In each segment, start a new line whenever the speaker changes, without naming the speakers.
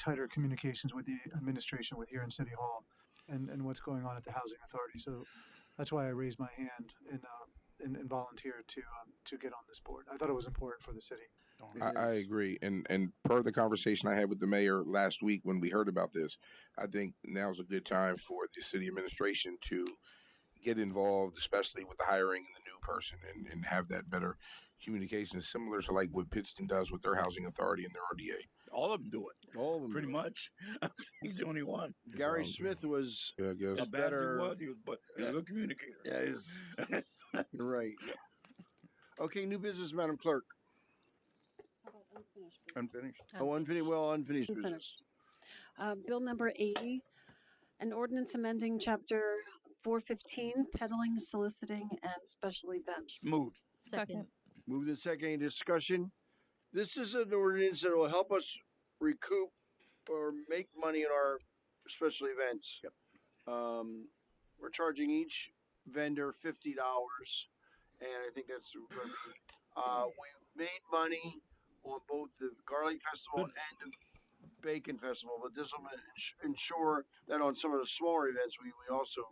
tighter communications with the administration, with here in City Hall, and, and what's going on at the Housing Authority. So that's why I raised my hand and, uh, and, and volunteered to, um, to get on this board. I thought it was important for the city.
I, I agree, and and per the conversation I had with the mayor last week when we heard about this, I think now's a good time for the city administration to get involved, especially with the hiring and the new person, and, and have that better communication, similar to like what Pittston does with their housing authority and their RDA.
All of them do it,
All of them.
pretty much. He's the only one.
Gary Smith was
Yeah, I
How
guess.
bad
better-
he was, he was, but he's a good communicator.
Yeah, he's- right. Okay, new business, Madam Clerk.
How about unfinished business?
Unfinished. Oh, unfinished. Well, unfinished business.
Unfinished. Uh, Bill number 80, an ordinance amending chapter 415, peddling, soliciting, and special events.
Moved.
Second.
Move the second any discussion. This is an ordinance that will help us recoup or make money in our special events. Um, we're charging each vendor fifty dollars, and I think that's uh, we made money on both the garlic festival and the bacon festival, but this will ens- ensure that on some of the smaller events we, we also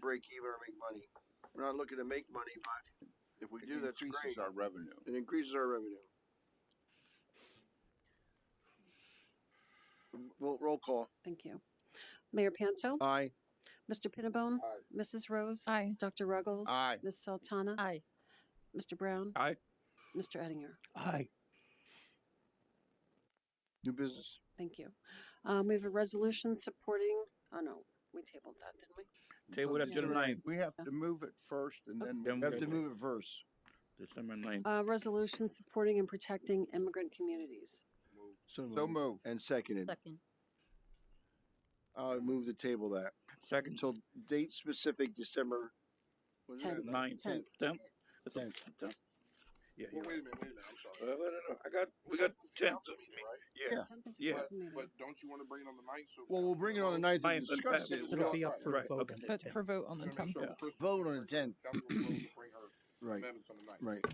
break even or make money. We're not looking to make money, but if we do, that's great.
Our revenue.
It increases our revenue. Roll, roll call.
Thank you. Mayor Panto,
Aye.
Mr. Pinnabone, Mrs. Rose,
Aye.
Dr. Ruggles,
Aye.
Ms. Sultana,
Aye.
Mr. Brown,
Aye.
Mr. Ettinger.
Aye.
New business.
Thank you. Um, we have a resolution supporting, oh no, we tabled that, didn't we?
Table that to the ninth,
We have to move it first and then.
Then
We have to move it first.
December ninth.
Uh, resolution supporting and protecting immigrant communities.
Mm-hmm.
So move.
And seconded.
Second.
I'll move the table that.
Second
Until date specific December. what is that?
Tenth.
ninth.
Tenth.
Tenth. That's a- tenth. Yeah,
Well, wait
you're
a minute,
right.
wait a minute, I'm sorry.
Uh, no, no, no, I got, we got tenth.
Right?
Yeah,
Tenth is a
Yeah,
board meeting.
But don't you want to bring it on the ninth? So
Well, we'll bring it on the ninth and
Ninth and
discuss it.
tenth.
We
It'll
don't-
be up for
Right,
vote.
okay.
on the
But for vote on the
So make
tenth.
sure
Yeah.
Chris-
Vote on the 10th.
Councilwoman Rose will bring her
Right,
amendments on the ninth.
right.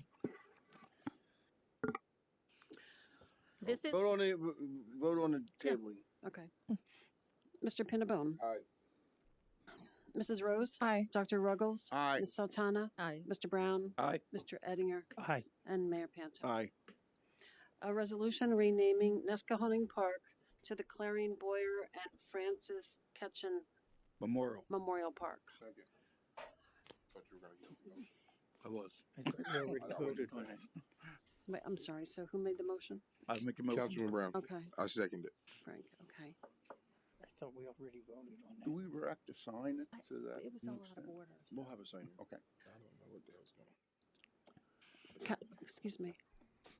This is,
Vote on the, vote on the tabling.
Okay. Mr. Pinnabone,
Aye.
Mrs. Rose,
aye.
Dr. Ruggles,
Aye.
Ms. Sultana,
Aye.
Mr. Brown,
Aye.
Mr. Ettinger,
Aye.
and Mayor Panto.
Aye.
A resolution renaming Nescahoning Park to the Clarion Boyer and Francis Ketchen
Memorial,
Memorial Park.
Second. Thought you were gonna get it.
I was.
It's already voted on.
Wait, I'm sorry, so who made the motion?
I was making motion.
Councilman Brown,
Okay,
I second it.
Frank, okay.
I thought we already voted on
Do
that.
we have to sign it to that?
It was a lot of orders.
We'll have a sign. Okay.
Mm-hmm. I don't know what the hell's going on.
Ca- Excuse me,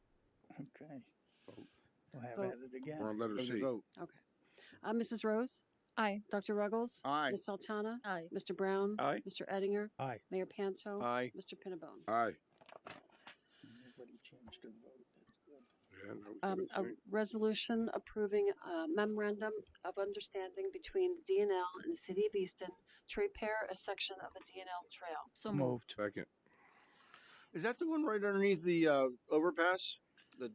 Okay. We'll have
Vote.
at it
We're
again.
on letter C.
Vote.
okay. Uh, Mrs. Rose,
Aye.
Dr. Ruggles.
Aye.
Ms. Sultana.
Aye.
Mr. Brown.
Aye.
Mr. Ettinger.
Aye.
Mayor Panto.
Aye.
Mr. Pinnabone.
Aye.
Nobody changed their vote. That's good.
Yeah, no, we
Um,
can't
a
say.
resolution approving a memorandum of understanding between DNL and the City of Easton to repair a section of the DNL trail.
So moved.
Moved.
Second.
Is that the one right underneath the uh, overpass, the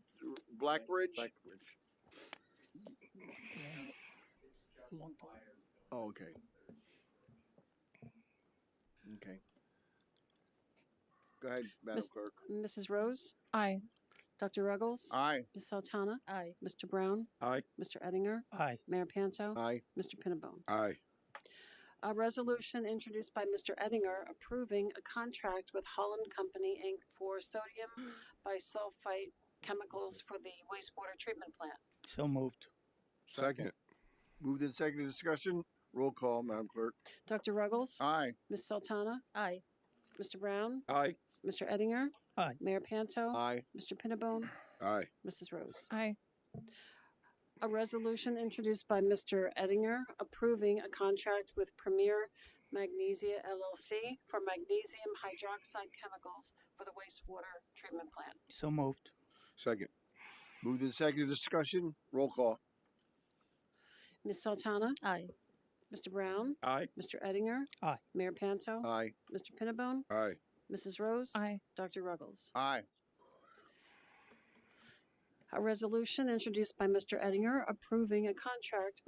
Black Bridge?
Blackbridge.
Long time.
Oh, okay. Okay. Go ahead, Madam
Miss-
Clerk.
Mrs. Rose,
Aye.
Dr. Ruggles,
Aye.
Ms. Sultana,
Aye.
Mr. Brown,
Aye.
Mr. Ettinger,
Aye.
Mayor Panto,
Aye.
Mr. Pinnabone.
Aye.
A resolution introduced by Mr. Ettinger approving a contract with Holland Company Inc. for sodium bisulfite chemicals for the wastewater treatment plant.
So moved.
Second.
Moved in second discussion. Roll call, Madam Clerk.
Dr. Ruggles,
Aye.
Ms. Sultana,
Aye.
Mr. Brown,
Aye.
Mr. Ettinger?
Aye.
Mayor Panto?
Aye.
Mr. Pinnabone?
Aye.
Mrs. Rose?
Aye.
A resolution introduced by Mr. Ettinger approving a contract with Premier Magnesia LLC for magnesium hydroxide chemicals for the wastewater treatment plant.
So moved.
Second.
Moved in second discussion. Roll call.
Ms. Sultana?
Aye.
Mr. Brown?
Aye.
Mr. Ettinger?
Aye.
Mayor Panto?
Aye.
Mr. Pinnabone?
Aye.
Mrs. Rose?
Aye.
Dr. Ruggles?
Aye.
A resolution introduced by Mr. Ettinger approving a contract